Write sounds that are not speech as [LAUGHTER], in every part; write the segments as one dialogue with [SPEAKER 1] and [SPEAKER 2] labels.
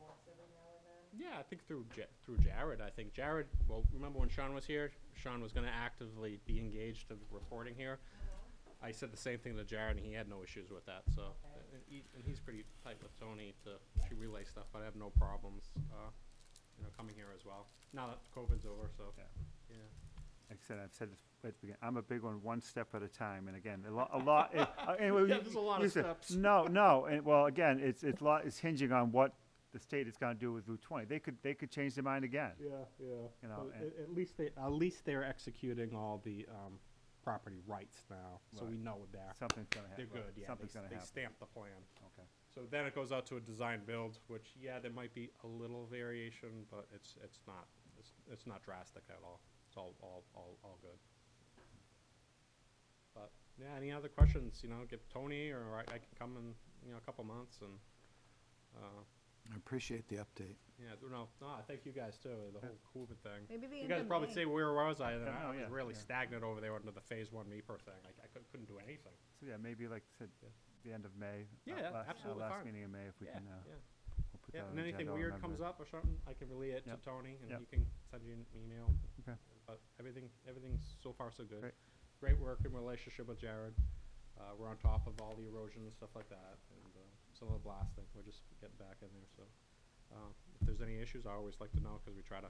[SPEAKER 1] once every now and then?
[SPEAKER 2] Yeah, I think through Ja- through Jared. I think Jared. Well, remember when Sean was here? Sean was going to actively be engaged in reporting here. I said the same thing to Jared, and he had no issues with that. So,
[SPEAKER 1] Okay.
[SPEAKER 2] and, he, and he's pretty tight with Tony to to relay stuff. But I have no problems, uh, you know, coming here as well. Now that COVID's over, so
[SPEAKER 3] Yeah.
[SPEAKER 2] yeah.
[SPEAKER 3] Like I said, I've said this at the beginning, I'm a big one, one step at a time, and again, a lot, a lot, it- uh, [LAUGHS] anyway.
[SPEAKER 2] Yeah,
[SPEAKER 3] you-
[SPEAKER 2] there's a lot of
[SPEAKER 3] you said-
[SPEAKER 2] steps.
[SPEAKER 3] No, no, and, well, again, it's, it's lot, it's hinging on what the state is gonna do with Route twenty. They could, they could change their mind again.
[SPEAKER 2] Yeah, yeah.
[SPEAKER 3] You know,
[SPEAKER 2] But
[SPEAKER 3] and-
[SPEAKER 2] at, at least they at least they're executing all the um, property rights now, so we
[SPEAKER 3] Right.
[SPEAKER 2] know they're
[SPEAKER 3] Something's gonna happen.
[SPEAKER 2] they're good. Yeah,
[SPEAKER 3] Something's
[SPEAKER 2] they,
[SPEAKER 3] gonna
[SPEAKER 2] they
[SPEAKER 3] happen.
[SPEAKER 2] stamp the plan.
[SPEAKER 3] Okay.
[SPEAKER 2] So then it goes out to a design build, which, yeah, there might be a little variation, but it's, it's not, it's, it's not drastic at all. It's all, all, all, all good. But, yeah, any other questions, you know, give Tony or I, I can come in, you know, a couple months and, uh,
[SPEAKER 4] I appreciate the update.
[SPEAKER 2] yeah, no, no, I thank you guys too, the whole COVID thing.
[SPEAKER 1] Maybe the
[SPEAKER 2] You
[SPEAKER 1] end
[SPEAKER 2] guys
[SPEAKER 1] of
[SPEAKER 2] probably
[SPEAKER 1] May.
[SPEAKER 2] say, where was I? And
[SPEAKER 3] Yeah,
[SPEAKER 2] I
[SPEAKER 3] no,
[SPEAKER 2] was
[SPEAKER 3] yeah,
[SPEAKER 2] really
[SPEAKER 3] yeah.
[SPEAKER 2] stagnant over there under the phase one MEPR thing. Like, I couldn't, couldn't do anything.
[SPEAKER 3] So, yeah, maybe like I said,
[SPEAKER 2] Yeah.
[SPEAKER 3] the end of May.
[SPEAKER 2] Yeah,
[SPEAKER 3] uh,
[SPEAKER 2] yeah,
[SPEAKER 3] last- our
[SPEAKER 2] absolutely
[SPEAKER 3] Last
[SPEAKER 2] fine.
[SPEAKER 3] meeting in May, if we
[SPEAKER 2] Yeah,
[SPEAKER 3] can, uh,
[SPEAKER 2] yeah.
[SPEAKER 3] we'll put that
[SPEAKER 2] Yeah,
[SPEAKER 3] on
[SPEAKER 2] and
[SPEAKER 3] the
[SPEAKER 2] anything
[SPEAKER 3] agenda, I'll
[SPEAKER 2] weird
[SPEAKER 3] remember
[SPEAKER 2] comes
[SPEAKER 3] that.
[SPEAKER 2] up or something, I can relay it to
[SPEAKER 3] Yep.
[SPEAKER 2] Tony and
[SPEAKER 3] Yep.
[SPEAKER 2] he can send you an email.
[SPEAKER 3] Okay.
[SPEAKER 2] But everything, everything's so far so good.
[SPEAKER 3] Great.
[SPEAKER 2] Great work and relationship with Jared. Uh, we're on top of all the erosion and stuff like that and, uh, some of the blasting. We're just getting back in there, so. Uh, if there's any issues, I always like to know because we try to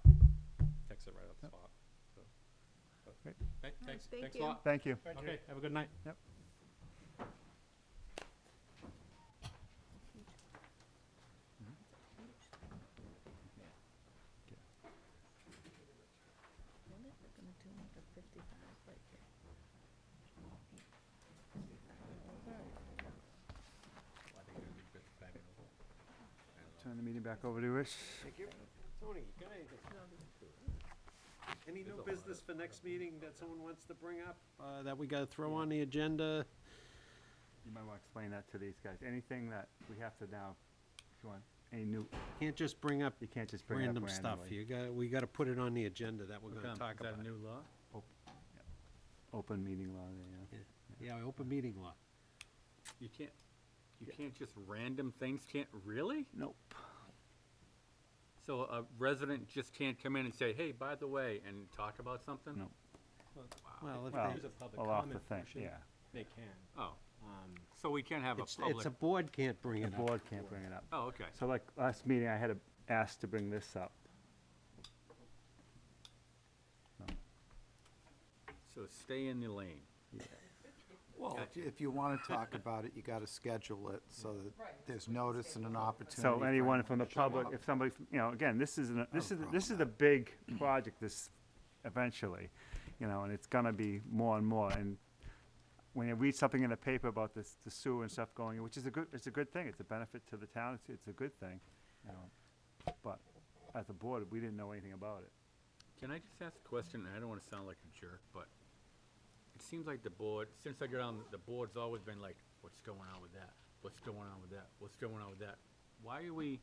[SPEAKER 2] fix it right at the
[SPEAKER 3] Yep.
[SPEAKER 2] spot, so. but
[SPEAKER 3] Great.
[SPEAKER 2] thank- Thanks,
[SPEAKER 1] thank
[SPEAKER 2] thanks a
[SPEAKER 1] you.
[SPEAKER 2] lot.
[SPEAKER 3] Thank you.
[SPEAKER 2] Okay, have a good night.
[SPEAKER 3] Yep.
[SPEAKER 1] When is it gonna do like a fifty-five, like?
[SPEAKER 3] Turn the meeting back over to Rich.
[SPEAKER 5] Thank you. Tony, can I, any new business for next meeting that someone wants to bring up, uh, that we gotta throw on the agenda?
[SPEAKER 3] You might want to explain that to these guys. Anything that we have to now, if you want, any new,
[SPEAKER 5] Can't just bring up
[SPEAKER 3] you can't just bring it up
[SPEAKER 5] random
[SPEAKER 3] randomly.
[SPEAKER 5] stuff. You gotta, we gotta put it on the agenda that we're gonna talk about.
[SPEAKER 6] new law?
[SPEAKER 3] Open meeting law, yeah.
[SPEAKER 5] Yeah, open meeting law.
[SPEAKER 6] You can't, you can't just random things, can't, really?
[SPEAKER 3] Nope.
[SPEAKER 6] So a resident just can't come in and say, hey, by the way, and talk about something?
[SPEAKER 3] No.
[SPEAKER 5] Well, if
[SPEAKER 3] Well,
[SPEAKER 5] there's a
[SPEAKER 3] well, off the thing, yeah.
[SPEAKER 2] They can.
[SPEAKER 6] Oh, so we can't have a
[SPEAKER 5] It's, it's
[SPEAKER 6] public,
[SPEAKER 5] a board can't bring
[SPEAKER 3] The
[SPEAKER 5] it up.
[SPEAKER 3] board can't bring it up.
[SPEAKER 6] oh, okay.
[SPEAKER 3] So like last meeting, I had to ask to bring this up.
[SPEAKER 6] So stay in the lane.
[SPEAKER 4] Well, if you- if you want to talk about it, you got to schedule it so
[SPEAKER 1] Right.
[SPEAKER 4] that there's notice and an opportunity.
[SPEAKER 3] So
[SPEAKER 4] for
[SPEAKER 3] anyone from the
[SPEAKER 4] to show
[SPEAKER 3] public,
[SPEAKER 4] up.
[SPEAKER 3] if somebody, from- you know, again, this is, an- this is,
[SPEAKER 4] problem
[SPEAKER 3] this is a big project this, eventually, you know, and it's gonna be more and more, and when you read something in the paper about this, the sewer and stuff going, in, which is a good, it's a good thing, it's a benefit to the town, it's, it's a good thing, you know, but as a board, we didn't know anything about it.
[SPEAKER 6] Can I just ask a question? And I don't want to sound like a jerk, but it seems like the board, since I got on, the board's always been like, what's going on with that? What's going on with that? What's going on with that? Why are we,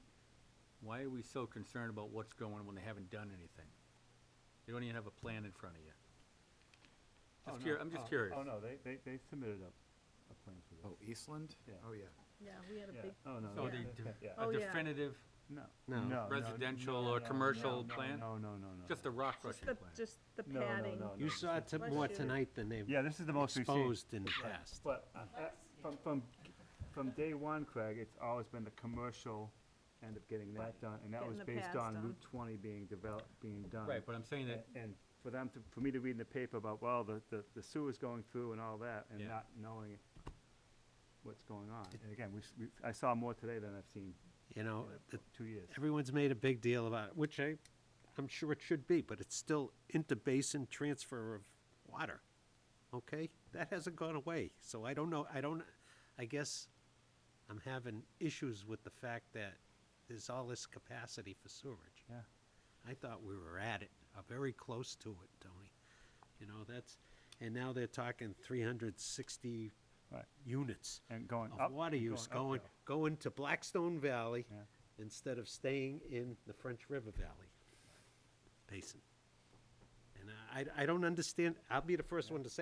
[SPEAKER 6] why are we so concerned about what's going on when they haven't done anything? They don't even have a plan in front of you. Just curi- I'm just curious.
[SPEAKER 3] Oh, no, they, they, they submitted a, a plan for this.
[SPEAKER 4] Oh, Eastland?
[SPEAKER 3] Yeah.
[SPEAKER 4] Oh, yeah.
[SPEAKER 1] Yeah, we had a
[SPEAKER 3] Yeah.
[SPEAKER 1] big,
[SPEAKER 3] Oh, no,
[SPEAKER 6] So
[SPEAKER 3] they-
[SPEAKER 6] the,
[SPEAKER 3] they-
[SPEAKER 6] de-
[SPEAKER 3] [LAUGHS] yeah.
[SPEAKER 1] Oh,
[SPEAKER 6] a
[SPEAKER 1] yeah.
[SPEAKER 6] definitive,
[SPEAKER 3] No.
[SPEAKER 5] No.
[SPEAKER 3] No, no,
[SPEAKER 6] residential
[SPEAKER 3] no,
[SPEAKER 6] or
[SPEAKER 3] no,
[SPEAKER 6] commercial
[SPEAKER 3] no,
[SPEAKER 6] plan?
[SPEAKER 3] No, no, no, no.
[SPEAKER 6] just
[SPEAKER 3] no.
[SPEAKER 6] a rock
[SPEAKER 1] just
[SPEAKER 6] crushing
[SPEAKER 1] the,
[SPEAKER 6] plan.
[SPEAKER 1] just the
[SPEAKER 3] No, no,
[SPEAKER 1] padding.
[SPEAKER 3] no, no.
[SPEAKER 5] You saw it to-
[SPEAKER 1] Bless
[SPEAKER 5] more
[SPEAKER 1] you.
[SPEAKER 5] tonight than they've
[SPEAKER 3] Yeah, this is the most we've seen.
[SPEAKER 5] exposed in the past.
[SPEAKER 3] But uh, uh, from, from, from day one, Craig, it's always been the commercial end up getting that done, and that
[SPEAKER 1] Getting
[SPEAKER 3] was
[SPEAKER 1] the
[SPEAKER 3] based
[SPEAKER 1] pads
[SPEAKER 3] on
[SPEAKER 1] done.
[SPEAKER 3] Route twenty being developed, being done.
[SPEAKER 6] Right, but I'm saying that,
[SPEAKER 3] A- And for them to, for me to read in the paper about, well, the, the the sewer's going through and all that, and
[SPEAKER 6] Yeah.
[SPEAKER 3] not knowing what's going on. And again, we, s- we, I saw more today than I've seen
[SPEAKER 5] You know,
[SPEAKER 3] in
[SPEAKER 5] the
[SPEAKER 3] two years.
[SPEAKER 5] everyone's made a big deal about it, which I, I'm sure it should be, but it's still interbasin transfer of water. Okay, that hasn't gone away, so I don't know, I don't, I guess I'm having issues with the fact that there's all this capacity for sewerage.
[SPEAKER 3] Yeah.
[SPEAKER 5] I thought we were at it, uh, very close to it, Tony. You know, that's, and now they're talking three hundred sixty
[SPEAKER 3] Right.
[SPEAKER 5] units
[SPEAKER 3] And going up.
[SPEAKER 5] of water
[SPEAKER 3] and
[SPEAKER 5] use going,
[SPEAKER 3] uphill.
[SPEAKER 5] going to Blackstone Valley
[SPEAKER 3] Yeah.
[SPEAKER 5] instead of staying in the French River Valley basin. And I, I don't understand, I'll be the first one to say